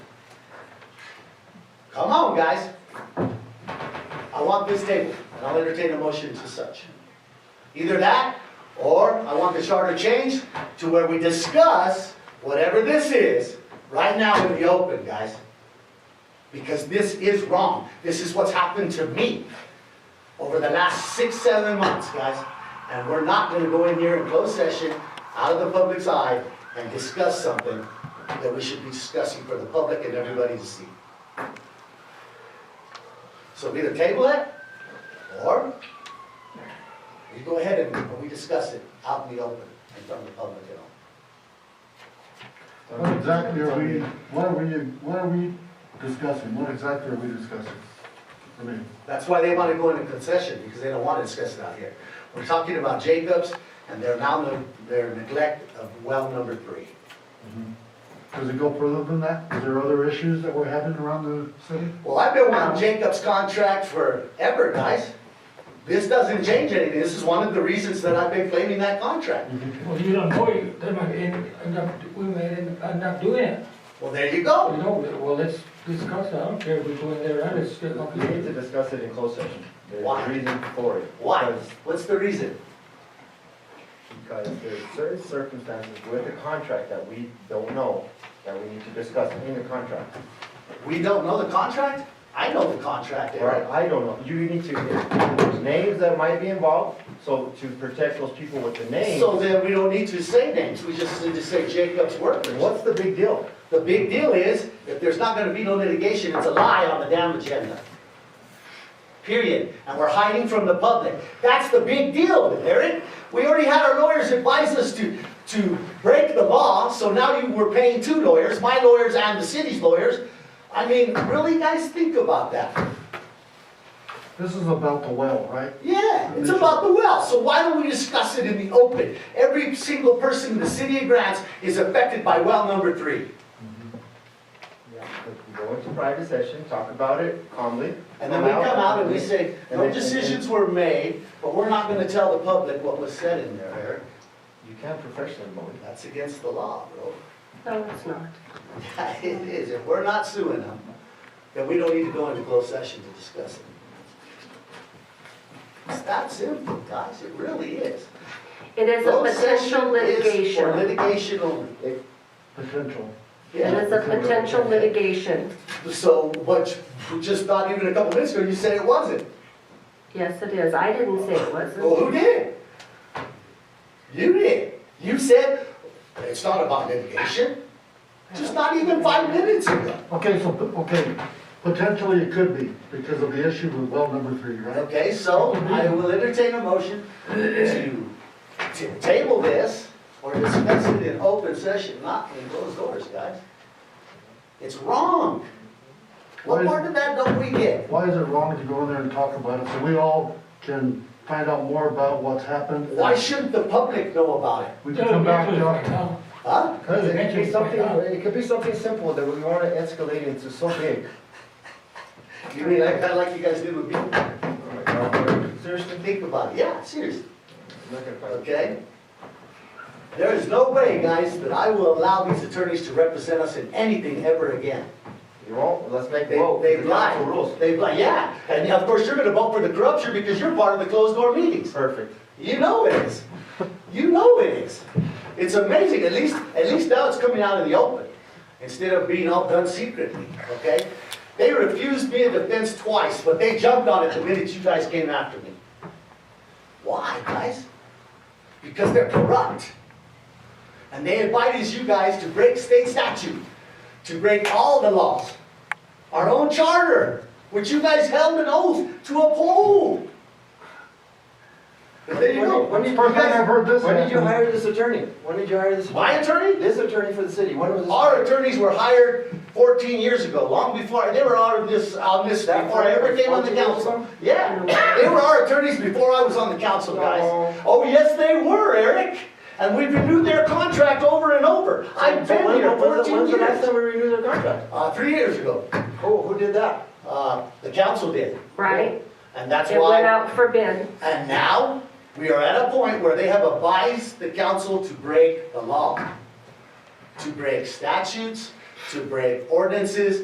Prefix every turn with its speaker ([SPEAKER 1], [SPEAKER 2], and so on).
[SPEAKER 1] on, guys. I want this table, and I'll entertain a motion to such. Either that, or I want the charter changed to where we discuss whatever this is, right now in the open, guys. Because this is wrong. This is what's happened to me over the last six, seven months, guys. And we're not gonna go in here in closed session, out of the public's eye, and discuss something that we should be discussing for the public and everybody to see. So we either table it, or we go ahead and- and we discuss it out in the open, in front of the public and all.
[SPEAKER 2] What exactly are we, what are we, what are we discussing? What exactly are we discussing? I mean,
[SPEAKER 1] That's why they want to go into concession, because they don't want to discuss it out here. We're talking about Jacobs and their now, their neglect of well number three.
[SPEAKER 2] does it go further than that? Is there other issues that we're having around the city?
[SPEAKER 1] Well, I've been wanting Jacobs' contract forever, guys. This doesn't change anything. This is one of the reasons that I've been claiming that contract.
[SPEAKER 3] Well, you don't know, you, they might end, end up, we may end end up doing it.
[SPEAKER 1] Well, there you
[SPEAKER 3] You
[SPEAKER 1] go.
[SPEAKER 3] know, well, let's discuss it, I don't care if we go in there, I just, still
[SPEAKER 4] We need to
[SPEAKER 3] okay.
[SPEAKER 4] discuss it in closed session. There's
[SPEAKER 1] Why?
[SPEAKER 4] a reason for it.
[SPEAKER 1] Why?
[SPEAKER 4] Because-
[SPEAKER 1] What's the reason?
[SPEAKER 4] Because there's certain circumstances with the contract that we don't know, that we need to discuss in the contract.
[SPEAKER 1] We don't know the contract? I know the contract,
[SPEAKER 4] Right,
[SPEAKER 1] Eric.
[SPEAKER 4] I don't know, you need to, there's names that might be involved, so to protect those people with the names,
[SPEAKER 1] So then we don't need to say names. We just need to say Jacobs' workers.
[SPEAKER 4] what's the big deal?
[SPEAKER 1] The big deal is, if there's not gonna be no litigation, it's a lie on the damn agenda. Period. And we're hiding from the public. That's the big deal, Eric. We already had our lawyers advise us to, to break the law, so now you, we're paying two lawyers, my lawyers and the city's lawyers. I mean, really, guys, think about that.
[SPEAKER 2] This is about the well, right?
[SPEAKER 1] Yeah, it's about the well, so why don't we discuss it in the open? Every single person in the city of Grants is affected by well number three.
[SPEAKER 4] Go into private session, talk about it calmly.
[SPEAKER 1] And then we come out and we say,
[SPEAKER 4] And
[SPEAKER 1] no
[SPEAKER 4] then-
[SPEAKER 1] decisions were made, but we're not gonna tell the public what was said in there, Eric.
[SPEAKER 4] You can't professionally mow it.
[SPEAKER 1] That's against the law, bro.
[SPEAKER 5] No, it's not.
[SPEAKER 1] Yeah, It is, if we're not suing them, then we don't need to go into closed session to discuss it. It's that simple, guys, it really is.
[SPEAKER 5] It is a
[SPEAKER 1] Closed
[SPEAKER 5] potential
[SPEAKER 1] session is For
[SPEAKER 5] litigation.
[SPEAKER 1] litigation only.
[SPEAKER 2] Potential.
[SPEAKER 5] It
[SPEAKER 1] Yeah,
[SPEAKER 5] is a potential litigation.
[SPEAKER 1] so, but you- just not even a couple minutes ago, you said it wasn't.
[SPEAKER 5] Yes, it is. I didn't say it wasn't.
[SPEAKER 1] Well, who did? You did. You said, it's not about litigation, just not even five minutes ago.
[SPEAKER 2] Okay, so, okay, potentially it could be because of the issue with well number three, right?
[SPEAKER 1] Okay, so I will entertain a motion to, to table this or discuss it in open session, not in closed doors, guys. It's wrong. What part of that don't we get?
[SPEAKER 2] Why is it wrong to go in there and talk about it so we all can find out more about what's happened?
[SPEAKER 1] Why shouldn't the public know about it?
[SPEAKER 2] We can come back to it.
[SPEAKER 1] Huh?
[SPEAKER 4] Because it could be something, it could be something simple that we want to escalate into so big.
[SPEAKER 1] You mean like, kinda like you guys did with me? Seriously, think about it. Yeah, seriously. okay? There is no way, guys, that I will allow these attorneys to represent us in anything ever again.
[SPEAKER 4] You won't, let's make
[SPEAKER 1] They,
[SPEAKER 4] vote.
[SPEAKER 1] they've
[SPEAKER 4] got the
[SPEAKER 1] lied,
[SPEAKER 4] rules.
[SPEAKER 1] they've lied, yeah, and of course, you're gonna vote for the corruption because you're part of the closed door meetings.
[SPEAKER 4] Perfect.
[SPEAKER 1] You know it is, you know it is. It's amazing, at least, at least now it's coming out in the open, instead of being all done secretly, okay? They refused me a defense twice, but they jumped on it the minute you guys came after me. Why, guys? Because they're corrupt. And they invited you guys to break state statute, to break all the laws, our own charter, which you guys held an oath to uphold. But there you go.
[SPEAKER 4] When did- when
[SPEAKER 2] First
[SPEAKER 4] did you
[SPEAKER 2] time I've heard this
[SPEAKER 4] When did you
[SPEAKER 2] happen.
[SPEAKER 4] hire this attorney? When did you hire this?
[SPEAKER 1] My attorney?
[SPEAKER 4] This attorney for the city, when was this?
[SPEAKER 1] Our attorneys were hired 14 years ago, long before, they were on this, on this,
[SPEAKER 4] That
[SPEAKER 1] before I ever came on the
[SPEAKER 4] 14 years
[SPEAKER 1] council.
[SPEAKER 4] ago?
[SPEAKER 1] Yeah, they were our attorneys before I was on the council, guys.
[SPEAKER 4] No.
[SPEAKER 1] Oh, yes, they were, Eric. And we renewed their contract over and over. I've
[SPEAKER 4] So
[SPEAKER 1] been
[SPEAKER 4] when-
[SPEAKER 1] here
[SPEAKER 4] when was the-
[SPEAKER 1] 14
[SPEAKER 4] When's the last
[SPEAKER 1] years.
[SPEAKER 4] time we renewed their contract?
[SPEAKER 1] Uh, three years ago,
[SPEAKER 4] Who, who did that?
[SPEAKER 1] uh, the council did.
[SPEAKER 5] Right?
[SPEAKER 1] And that's
[SPEAKER 5] It went
[SPEAKER 1] why,
[SPEAKER 5] out for bid.
[SPEAKER 1] and now, we are at a point where they have advised the council to break the law. To break statutes, to break ordinances,